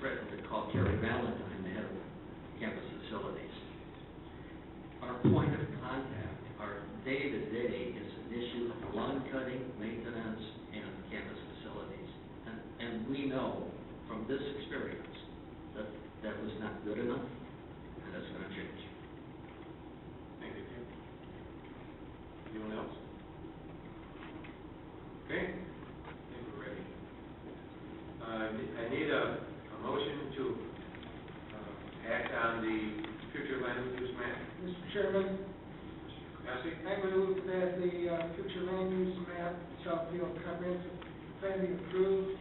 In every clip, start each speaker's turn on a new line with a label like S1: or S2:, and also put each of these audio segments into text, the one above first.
S1: Redditor called Gary Valentine, the head of campus facilities. Our point of contact, our day-to-day is an issue of lawn cutting, maintenance, and campus facilities. And, and we know from this experience that that was not good enough, and that's gonna change.
S2: Thank you, Ken. Anyone else? Okay, I think we're ready. Uh, I need a, a motion to, uh, act on the future land use map.
S3: Mr. Chairman,
S2: Bessie?
S3: I move that the uh, future land use map, Southfield comprehensive plan be approved.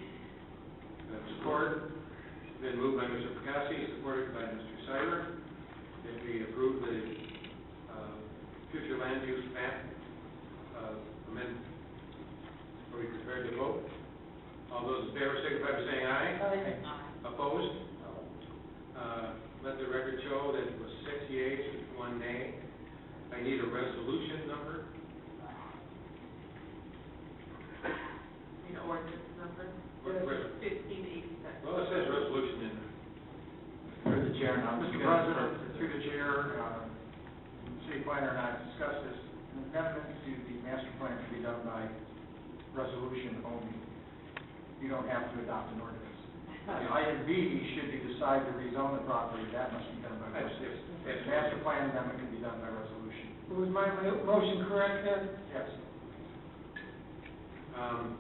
S2: Uh, Support, It's been moved by Mr. Perkowski, supported by Mr. Cyrus, that we approve the uh, future land use map uh, amendment. Are we prepared to vote? All those in favor signify by saying aye. Opposed? Uh, Let the record show that it was six yeas, one nay. I need a resolution number.
S4: An ordinance number
S2: What- what-
S4: fifteen eighty-six.
S2: Well, it says resolution in there.
S5: Through the chair, now, Mr.
S2: Okay.
S5: President, through the chair, uh, City Planner and I have discussed this, an amendment to the master plan can be done by resolution only. You don't have to adopt an ordinance. And Item B, should you decide to rezone the property, that must be done by
S2: That's,
S5: resolution.
S2: that's,
S5: The
S2: that's.
S5: master plan amendment can be done by resolution.
S3: Was my mo- motion correct then?
S5: Yes.
S2: Um,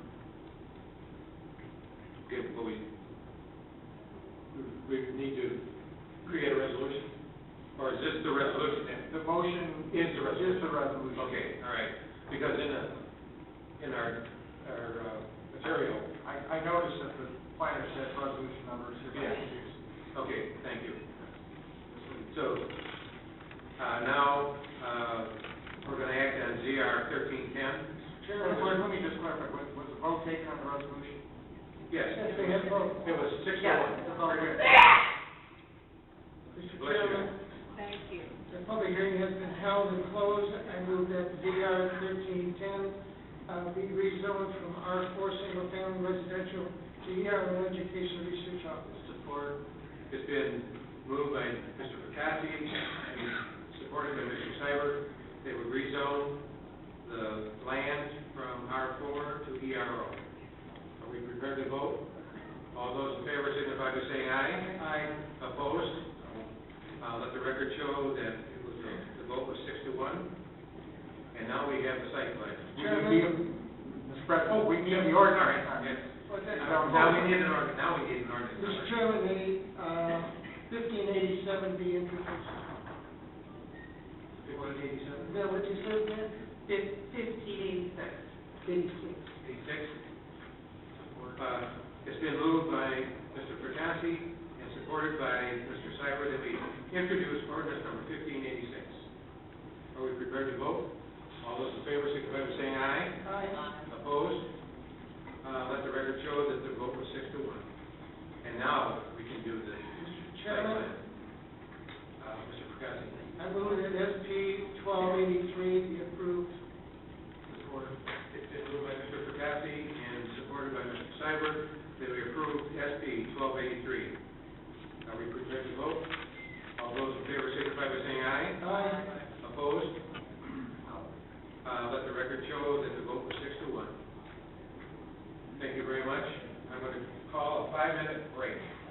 S2: Okay, well, we, we need to create a resolution, or is this the resolution then?
S5: The motion
S2: Is the resolution.
S5: Is the resolution.
S2: Okay, all right, because in the, in our, our uh, material,
S5: I, I noticed that the planner said resolution numbers here.
S2: Yeah. okay, thank you. So, uh, now, uh, we're gonna act on ZR thirteen ten.
S5: Chairman, let me just clarify, was, was the vote taken on the resolution?
S2: Yes,
S3: Yes, they had both.
S2: it was six to one.
S3: Mr.
S2: Bless you.
S3: Chairman,
S4: Thank you.
S3: the public hearing has been held and closed. I move that DR thirteen ten uh, be rezoned from R four single family residential to ER education research office.
S2: Support. It's been moved by Mr. Perkowski and supported by Mr. Seibert that we rezone the land from R4 to ERO. Are we prepared to vote? All those in favor signify by saying aye.
S3: Aye.
S2: Opposed? Uh, Let the record show that it was, a- the vote was six to one. And now we have the site plan.
S5: We need, Mr. President, Oh, we need the ordinary time.
S2: Yes.
S3: What's that?
S2: Now we need an ordinance, now we need an ordinance.
S3: Mr. Chairman, the, uh, fifteen eighty-seven be introduced.
S2: Fifteen eighty-seven?
S3: Is that what you said, Matt?
S4: Fifteen eighty-six.
S3: Eighty-six.
S2: Eighty-six. Uh, It's been moved by Mr. Perkowski and supported by Mr. Cybert that we introduce ordinance number fifteen eighty-six. Are we prepared to vote? All those in favor signify by saying aye.
S3: Aye.
S2: Opposed? Uh, Let the record show that the vote was six to one. And now we can do the site
S3: Chairman?
S2: plan. Uh, Mr. Perkowski.
S3: I move that SP twelve eighty-three be approved.
S2: Support. It's been moved by Mr. Perkowski and supported by Mr. Seibert that we approve SB twelve eighty-three. Are we prepared to vote? All those in favor signify by saying aye.
S3: Aye.
S2: Opposed? Uh, let the record show that the vote was six to one. Thank you very much. I'm going to call a five-minute break.